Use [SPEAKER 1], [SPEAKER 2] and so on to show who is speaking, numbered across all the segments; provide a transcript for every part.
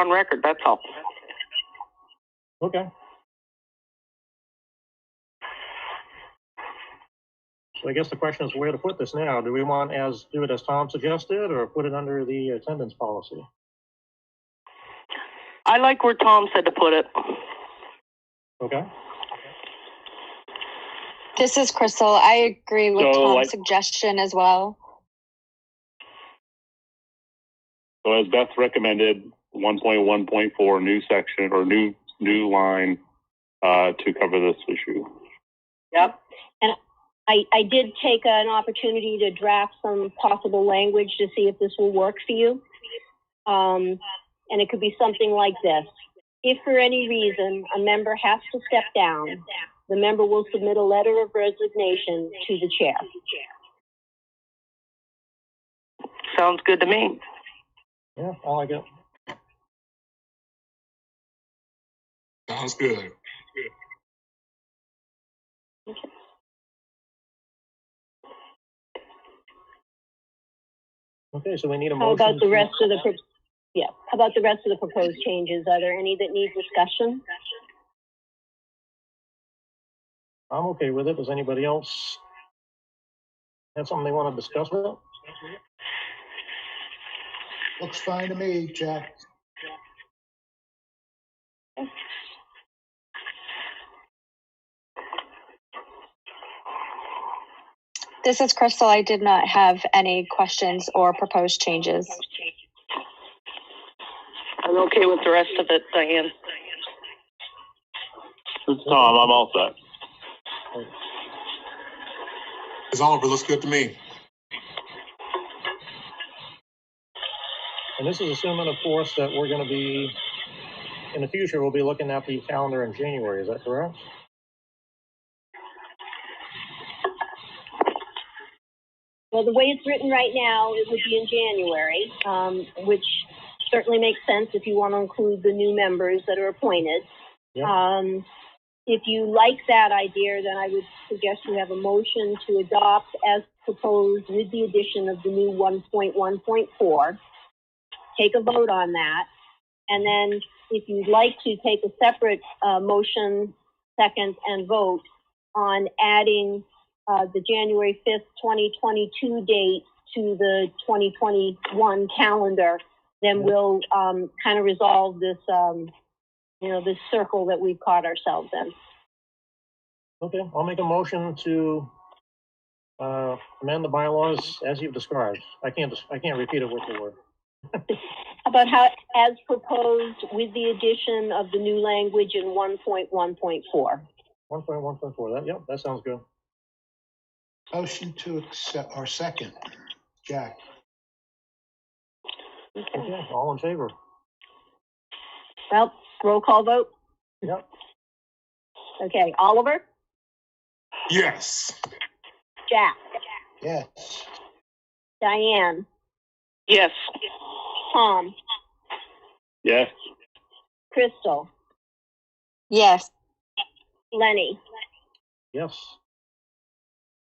[SPEAKER 1] on record, that's all.
[SPEAKER 2] Okay. So I guess the question is where to put this now? Do we want as, do it as Tom suggested or put it under the attendance policy?
[SPEAKER 1] I like where Tom said to put it.
[SPEAKER 2] Okay,
[SPEAKER 3] This is Crystal. I agree with
[SPEAKER 4] So,
[SPEAKER 3] Tom's
[SPEAKER 4] like-
[SPEAKER 3] suggestion as well.
[SPEAKER 4] So as Beth recommended, one point one point four, new section or new, new line, uh, to cover this issue.
[SPEAKER 1] Yep.
[SPEAKER 5] I, I did take an opportunity to draft some possible language to see if this will work for you. Um, and it could be something like this. If for any reason a member has to step down, the member will submit a letter of resignation to the chair.
[SPEAKER 1] Sounds good to me.
[SPEAKER 2] yeah, I like it.
[SPEAKER 6] Sounds good.
[SPEAKER 2] Okay, so we need a motion.
[SPEAKER 5] How about the
[SPEAKER 2] to-
[SPEAKER 5] rest of the, pro- yeah, how about the rest of the proposed changes? Are there any that need discussion?
[SPEAKER 2] I'm okay with it. Does anybody else have something they want to discuss with it?
[SPEAKER 6] Looks fine to me, Jack.
[SPEAKER 3] This is Crystal. I did not have any questions or proposed changes.
[SPEAKER 1] I'm okay with the rest of it, Diane.
[SPEAKER 4] It's Tom, I'm all set.
[SPEAKER 6] As Oliver looks good to me.
[SPEAKER 2] And this is assuming, of course, that we're going to be, in the future, we'll be looking at the calendar in January, is that correct?
[SPEAKER 5] Well, the way it's written right now, it would be in January, um, which certainly makes sense if you want to include the new members that are appointed.
[SPEAKER 2] Yeah.
[SPEAKER 5] Um, if you like that idea, then I would suggest you have a motion to adopt as proposed with the addition of the new one point one point four. Take a vote on that. And then if you'd like to take a separate, uh, motion, second, and vote on adding uh, the January 5th, 2022 date to the 2021 calendar, then we'll um, kind of resolve this, um, you know, this circle that we've caught ourselves in.
[SPEAKER 2] Okay, I'll make a motion to uh, amend the bylaws as you've described. I can't, dis- I can't repeat it word for word.
[SPEAKER 5] How About how, as proposed, with the addition of the new language in 1.1.4.
[SPEAKER 2] One point one point four, that, yep, that sounds good.
[SPEAKER 6] Motion to accept, or second, Jack.
[SPEAKER 2] Okay, all in favor?
[SPEAKER 5] Well, roll call vote?
[SPEAKER 2] Yep.
[SPEAKER 5] Okay, Oliver?
[SPEAKER 6] Yes.
[SPEAKER 5] Jack?
[SPEAKER 6] Yes.
[SPEAKER 5] Diane?
[SPEAKER 1] Yes.
[SPEAKER 5] Tom?
[SPEAKER 4] Yes,
[SPEAKER 5] Crystal?
[SPEAKER 3] Yes.
[SPEAKER 5] Lenny?
[SPEAKER 2] Yes.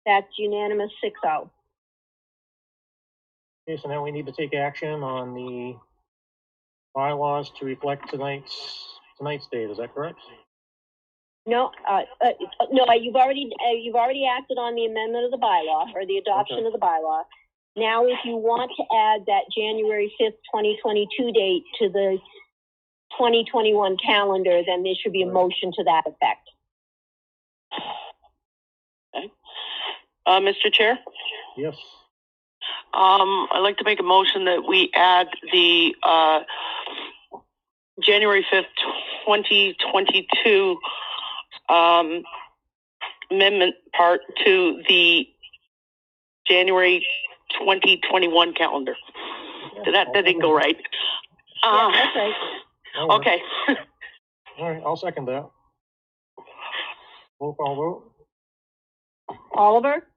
[SPEAKER 5] That's unanimous oh. 6-0.
[SPEAKER 2] Okay, so now we need to take action on the bylaws to reflect tonight's, tonight's date, is that correct?
[SPEAKER 5] No, uh, uh, no, uh, you've already, uh, you've already acted on the amendment of the bylaw or the adoption
[SPEAKER 2] Okay.
[SPEAKER 5] of the bylaw. Now, if you want to add that January fifth, twenty twenty-two date to the twenty twenty-one calendar, then there should be a
[SPEAKER 2] Right.
[SPEAKER 5] motion to that effect.
[SPEAKER 1] Uh, Mr. Chair,
[SPEAKER 2] Yes.
[SPEAKER 1] um, I'd like to make a motion that we add the, uh, January 5th, 2022, um, amendment part to the January 2021 calendar.
[SPEAKER 2] Okay,
[SPEAKER 1] That, that didn't go right.
[SPEAKER 5] Yeah,
[SPEAKER 1] Uh,
[SPEAKER 5] that's right.
[SPEAKER 2] That'll work.
[SPEAKER 1] okay.
[SPEAKER 2] All right, I'll second that. Roll call vote?
[SPEAKER 5] Oliver,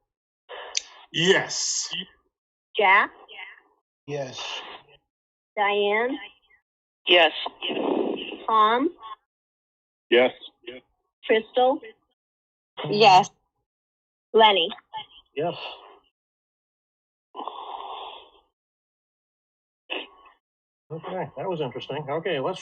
[SPEAKER 6] Yes.
[SPEAKER 5] Jack,
[SPEAKER 6] Yes.
[SPEAKER 5] Diane,
[SPEAKER 1] Yes.
[SPEAKER 5] Tom,
[SPEAKER 4] yes,
[SPEAKER 5] Crystal,
[SPEAKER 3] Yes.
[SPEAKER 5] Lenny.
[SPEAKER 2] Yes. Okay, that was interesting. Okay, let's